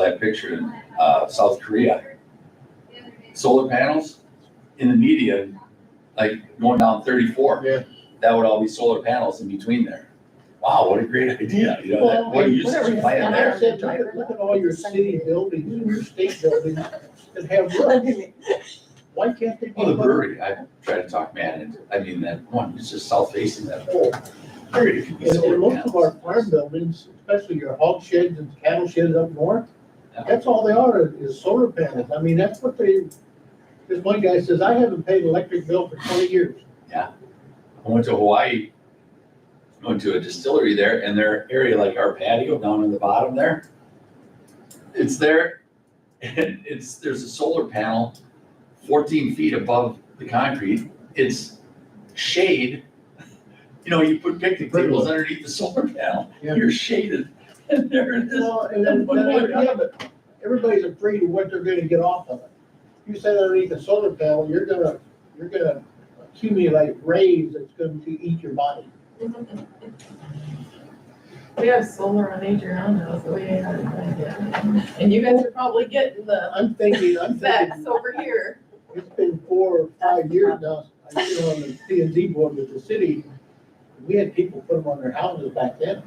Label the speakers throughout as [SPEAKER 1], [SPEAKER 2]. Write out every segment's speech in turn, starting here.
[SPEAKER 1] that picture in uh, South Korea. Solar panels in the median, like going down thirty-four.
[SPEAKER 2] Yeah.
[SPEAKER 1] That would all be solar panels in between there. Wow, what a great idea, you know, that-
[SPEAKER 2] Well,
[SPEAKER 1] what a
[SPEAKER 2] and
[SPEAKER 1] usage
[SPEAKER 2] whatever
[SPEAKER 1] of
[SPEAKER 2] you
[SPEAKER 1] land
[SPEAKER 2] said,
[SPEAKER 1] there.
[SPEAKER 2] I said, Look at- look at all your city buildings, even your state buildings that have roofs. Why can't they? be
[SPEAKER 1] Well, the
[SPEAKER 2] put-
[SPEAKER 1] brewery, I tried to talk man into, I mean, that one, it's just south facing that whole area could be
[SPEAKER 2] And, and
[SPEAKER 1] solar
[SPEAKER 2] most of our
[SPEAKER 1] panels.
[SPEAKER 2] farm buildings, especially your hog sheds and cattle sheds up north,
[SPEAKER 1] Yeah.
[SPEAKER 2] that's all they are, is- is solar panels. I mean, that's what they, this one guy says, I haven't paid electric bill for twenty years.
[SPEAKER 1] I went to Hawaii, went to a distillery there and their area, like our patio down in the bottom there. It's there and it's, there's a solar panel fourteen feet above the concrete. It's shade. You know, you put picnic tables underneath the solar panel,
[SPEAKER 2] Yeah.
[SPEAKER 1] you're shaded and there it is.
[SPEAKER 2] Well, and then, then, I- yeah, but everybody's afraid of what they're gonna get off of it. You sit underneath a solar panel, you're gonna, you're gonna accumulate rays that's going to eat your body.
[SPEAKER 3] We have solar on Adriana, now, so we ain't had it. And you guys are probably getting the
[SPEAKER 2] I'm thinking, I'm
[SPEAKER 3] facts
[SPEAKER 2] thinking,
[SPEAKER 3] over here.
[SPEAKER 2] it's been four or five years now, I've been on the P and Z board with the city. We had people put them on their houses back then.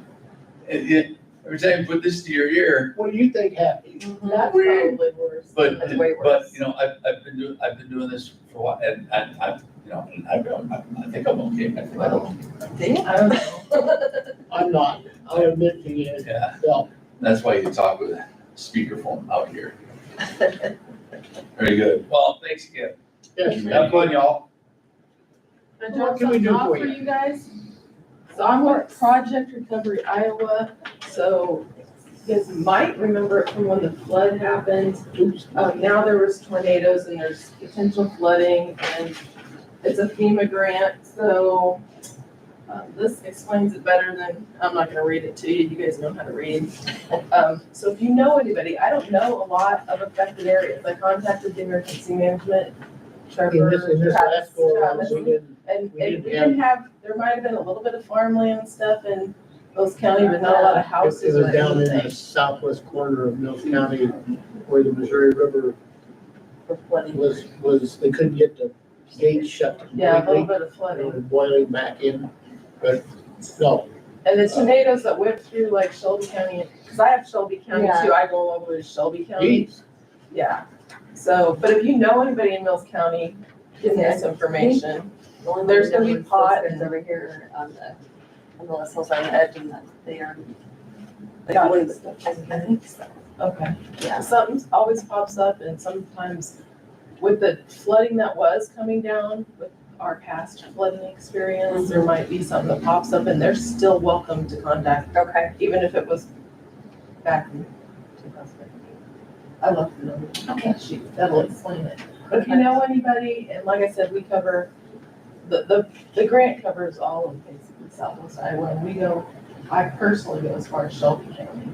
[SPEAKER 1] And it, every time you put this to your ear,
[SPEAKER 2] What do you think happened?
[SPEAKER 3] That's probably worse.
[SPEAKER 1] But,
[SPEAKER 3] That's way
[SPEAKER 1] but,
[SPEAKER 3] worse.
[SPEAKER 1] you know, I've, I've been doing, I've been doing this for a while, and, and I've, you know, and I've, been- I, I think I'm okay, I think I'm, okay.
[SPEAKER 3] I don't know.
[SPEAKER 2] I'm not, I admit to you,
[SPEAKER 1] yeah,
[SPEAKER 2] well,
[SPEAKER 1] that's why you talk with a speakerphone out here. Very good, well, thanks again,
[SPEAKER 2] yes,
[SPEAKER 1] have fun, y'all.
[SPEAKER 3] I
[SPEAKER 2] What
[SPEAKER 3] dropped
[SPEAKER 2] can we
[SPEAKER 3] something
[SPEAKER 2] do
[SPEAKER 3] off
[SPEAKER 2] for
[SPEAKER 3] for
[SPEAKER 2] you?
[SPEAKER 3] you guys. So I'm with Project Recovery Iowa, so you guys might remember it from when the flood happened.
[SPEAKER 2] oops,
[SPEAKER 3] Um, now there was tornadoes and there's potential flooding and it's a FEMA grant, so um, this explains it better than, I'm not gonna read it to you, you guys know how to read. Um, so if you know anybody, I don't know a lot of affected areas, I contacted the emergency management,
[SPEAKER 2] in this, in
[SPEAKER 3] Trevor,
[SPEAKER 2] this
[SPEAKER 3] Travis,
[SPEAKER 2] last go around,
[SPEAKER 3] Travis,
[SPEAKER 2] we didn't,
[SPEAKER 3] and,
[SPEAKER 2] We
[SPEAKER 3] and
[SPEAKER 2] didn't
[SPEAKER 3] we didn't have, there might have been a little bit of farmland stuff in Mills County, but not a lot
[SPEAKER 2] it
[SPEAKER 3] of houses or
[SPEAKER 2] was down in the
[SPEAKER 3] anything
[SPEAKER 2] southwest corner of Mills County where the Missouri River
[SPEAKER 3] for flooding.
[SPEAKER 2] was, was, they couldn't get the gate shut
[SPEAKER 3] Yeah, a
[SPEAKER 2] completely.
[SPEAKER 3] little bit of
[SPEAKER 2] They
[SPEAKER 3] flooding.
[SPEAKER 2] were boiling back in, but, no,
[SPEAKER 3] And the tornadoes that went through like Shelby County, because I have Shelby County
[SPEAKER 4] Yeah.
[SPEAKER 3] too, I go all over to Shelby County.
[SPEAKER 2] geez,
[SPEAKER 3] Yeah, so, but if you know anybody in Mills County, give me this information. There's gonna be pot and-
[SPEAKER 4] Over here on the, on the list, hills on the edge and that they are. Like,
[SPEAKER 3] Got it.
[SPEAKER 4] woods. I I think so,
[SPEAKER 3] Okay.
[SPEAKER 4] yeah.
[SPEAKER 3] Something always pops up and sometimes with the flooding that was coming down, with our past flooding experience,
[SPEAKER 4] Mm-hmm.
[SPEAKER 3] there might be something that pops up and they're still welcome to contact,
[SPEAKER 4] Okay.
[SPEAKER 3] even if it was back in two thousand fifteen. I love the number.
[SPEAKER 4] Okay.
[SPEAKER 3] She, that'll explain it. But if you know anybody, and like I said, we cover, the, the, the grant covers all of basically Southwest Iowa, and we go, I personally go as far as Shelby County.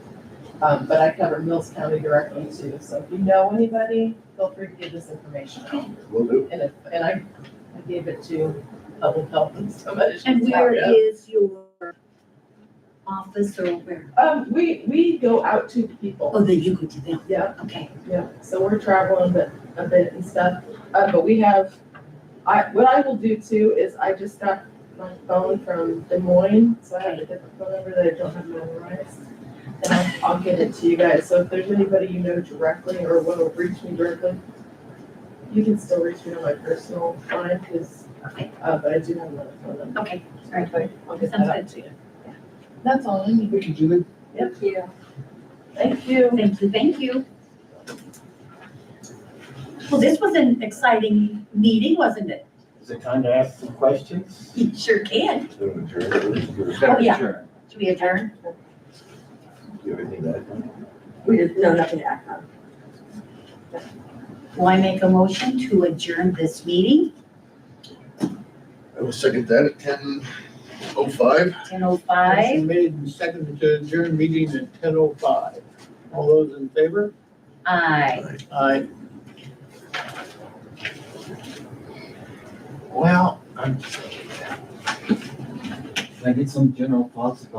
[SPEAKER 3] Um, but I cover Mills County directly too, so if you know anybody, feel free to give this information out.
[SPEAKER 1] Will do.
[SPEAKER 3] And if, and I, I gave it to public health and so much.
[SPEAKER 5] And where
[SPEAKER 1] Yeah.
[SPEAKER 5] is your office or where?
[SPEAKER 3] Um, we, we go out to people.
[SPEAKER 5] Oh, then you go to them,
[SPEAKER 3] Yeah,
[SPEAKER 5] okay.
[SPEAKER 3] Yeah, so we're traveling but a bit and stuff, uh, but we have, I, what I will do too is I just got my phone from Des Moines, so I have a different phone number that I don't have memorized. And I'll, I'll get it to you guys, so if there's anybody you know directly or will reach me directly, you can still reach me on my personal line, cause,
[SPEAKER 5] Okay.
[SPEAKER 3] uh, but I do have another phone number.
[SPEAKER 5] Okay,
[SPEAKER 3] All right, I'll get that
[SPEAKER 5] Sounds
[SPEAKER 3] out to you. That's all I need,
[SPEAKER 2] we could do it.
[SPEAKER 4] Thank you.
[SPEAKER 3] thank you.
[SPEAKER 5] thank you, thank you. Well, this was an exciting meeting, wasn't it?
[SPEAKER 6] Is it time to ask some questions?
[SPEAKER 5] You sure can.
[SPEAKER 1] Oh,
[SPEAKER 5] yeah. Should we adjourn?
[SPEAKER 4] We did, no, nothing to act on.
[SPEAKER 5] Will I make a motion to adjourn this meeting,
[SPEAKER 7] I will second that at ten oh five.
[SPEAKER 5] ten oh five?
[SPEAKER 2] Motion Made and seconded to adjourn meeting at ten oh five. All those in favor?
[SPEAKER 5] Aye.
[SPEAKER 2] Aye.
[SPEAKER 6] Well, I'm. Can I get some general thoughts about